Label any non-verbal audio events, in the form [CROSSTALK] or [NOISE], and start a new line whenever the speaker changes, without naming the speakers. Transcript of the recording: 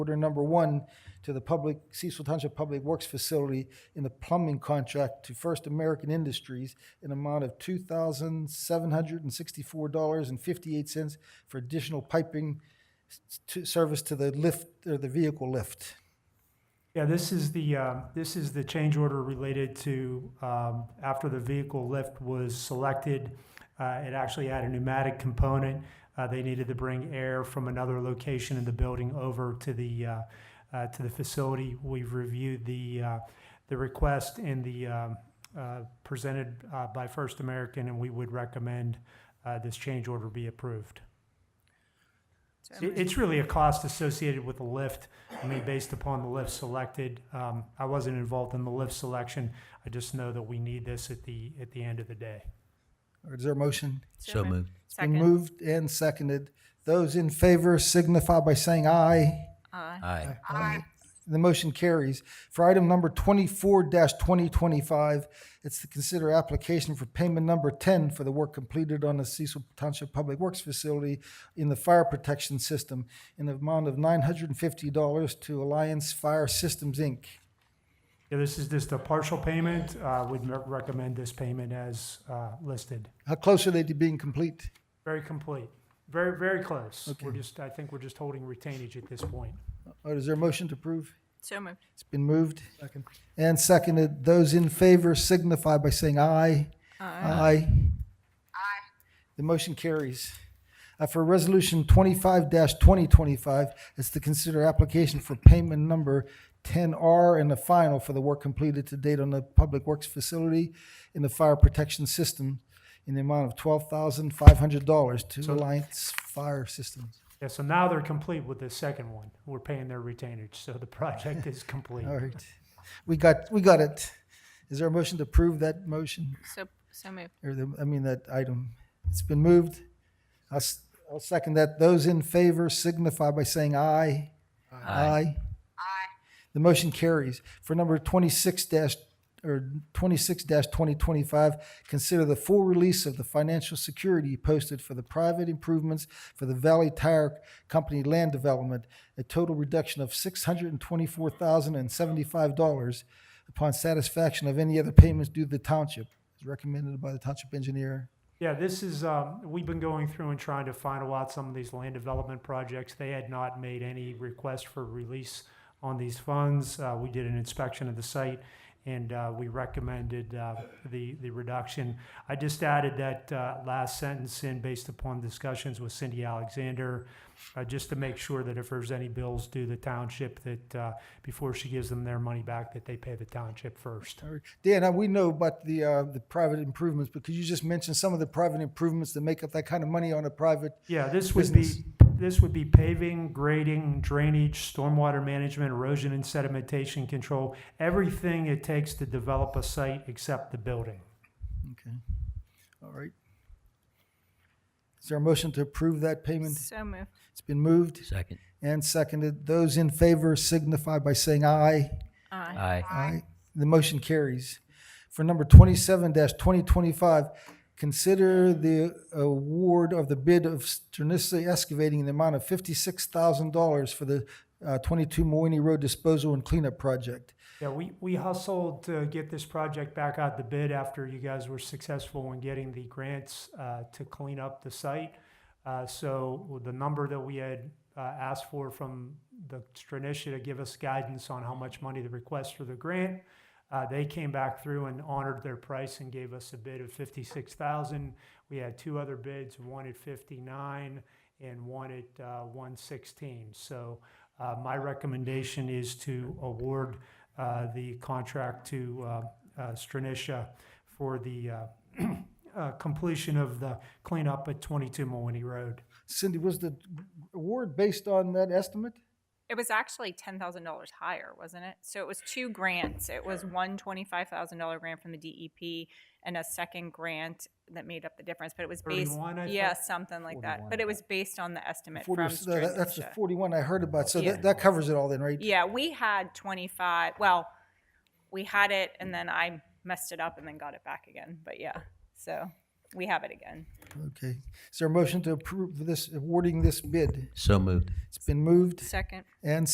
Order number one to the public, Cecil Township Public Works Facility in the plumbing contract to First American Industries in amount of two thousand seven hundred and sixty-four dollars and fifty-eight cents for additional piping s- to, service to the lift, or the vehicle lift.
Yeah, this is the, um, this is the change order related to, um, after the vehicle lift was selected, uh, it actually had a pneumatic component. Uh, they needed to bring air from another location in the building over to the, uh, uh, to the facility. We've reviewed the, uh, the request and the, um, uh, presented, uh, by First American, and we would recommend, uh, this change order be approved.
So I'm
It-
gonna-
It's really a cost associated with the lift. I mean, based upon the lift selected, um, I wasn't involved in the lift selection. I just know that we need this at the, at the end of the day.
Or Is there a motion?
So moved.
Been
Second.
moved and seconded. Those in favor signify by saying aye.
Aye.
Aye.
Aye.
The motion carries. For item number twenty-four twenty twenty-five, it's to consider application for payment number ten for the work completed on the Cecil Township Public Works Facility in the fire protection system in the amount of nine hundred and fifty dollars to Alliance Fire Systems, Inc.
Yeah, this is just a partial payment. Uh, we'd re- recommend this payment as, uh, listed.
How close are they to being complete?
Very complete. Very, very close. We're just, I think we're just holding retainage at this point.
Or is there a motion to approve?
So moved.
It's been moved. And seconded. Those in favor signify by saying aye. Aye. The motion carries. Uh, For Resolution twenty-five twenty twenty-five, it's to consider application for payment number ten R and the final for the work completed to date on the Public Works Facility in the Fire Protection System in the amount of twelve thousand five hundred dollars to Alliance Fire Systems.
Yeah, so now they're complete with the second one. We're paying their retainage, so the project is complete.
All right. We got, we got it. Is there a motion to approve that motion?
So, so moved.
or the, I mean, that item. It's been moved. I'll, s- I'll second that. Those in favor signify by saying aye. Aye. The motion carries. For number twenty-six dash, or twenty-six twenty twenty-five, consider the full release of the financial security posted for the private improvements for the Valley Tire Company land development, a total reduction of six hundred and twenty-four thousand and seventy-five dollars upon satisfaction of any other payments due to the township, as recommended by the township engineer.
Yeah, this is, um, we've been going through and trying to final out some of these land development projects. They had not made any request for release on these funds. Uh, we did an inspection of the site and, uh, we recommended, uh, the, the reduction. I just added that, uh, last sentence in based upon discussions with Cindy Alexander, uh, just to make sure that if there's any bills due the township that, uh, before she gives them their money back, that they pay the township first.
All right. Dan, uh, we know about the, uh, the private improvements, but could you just mention some of the private improvements that make up that kind of money on a private?
Yeah, this would be, this would be paving, grading, drainage, stormwater management, erosion and sedimentation control, everything it takes to develop a site except the building.
Okay. All right. Is there a motion to approve that payment?
So moved.
It's been moved
Second.
and seconded. Those in favor signify by saying aye.
Aye.
Aye.
Aye. The motion carries. For number twenty-seven twenty twenty-five, consider the award of the bid of Stranissa Excavating in the amount of fifty-six thousand dollars for the uh, twenty-two Moyni Road disposal and cleanup project.
Yeah, we, we hustled to get this project back out the bid after you guys were successful in getting the grants, uh, to clean up the site. Uh, so the number that we had, uh, asked for from the Stranisha to give us guidance on how much money to request for the grant, Uh, they came back through and honored their price and gave us a bid of fifty-six thousand. We had two other bids, one at fifty-nine and one at uh, one sixteen. So uh, my recommendation is to award uh, the contract to uh, uh, Stranisha for the uh, [CLEARS THROAT] uh, completion of the cleanup at twenty-two Mooney Road.
Cindy, was the award based on that estimate?
It was actually ten thousand dollars higher, wasn't it? So it was two grants. It was one twenty-five thousand dollar grant from the DEP and a second grant that made up the difference, but it was based,
31, I
yeah,
thought.
something like that. But it was based on the estimate from
40 so that- That's the
Stranisha.
forty-one I heard about, so
Yeah.
that, that covers it all then, right?
Yeah, we had twenty-five, well, we had it and then I messed it up and then got it back again, but yeah. So we have it again.
Okay. Is there a motion to approve this, awarding this bid?
So moved.
It's been moved
Second.
and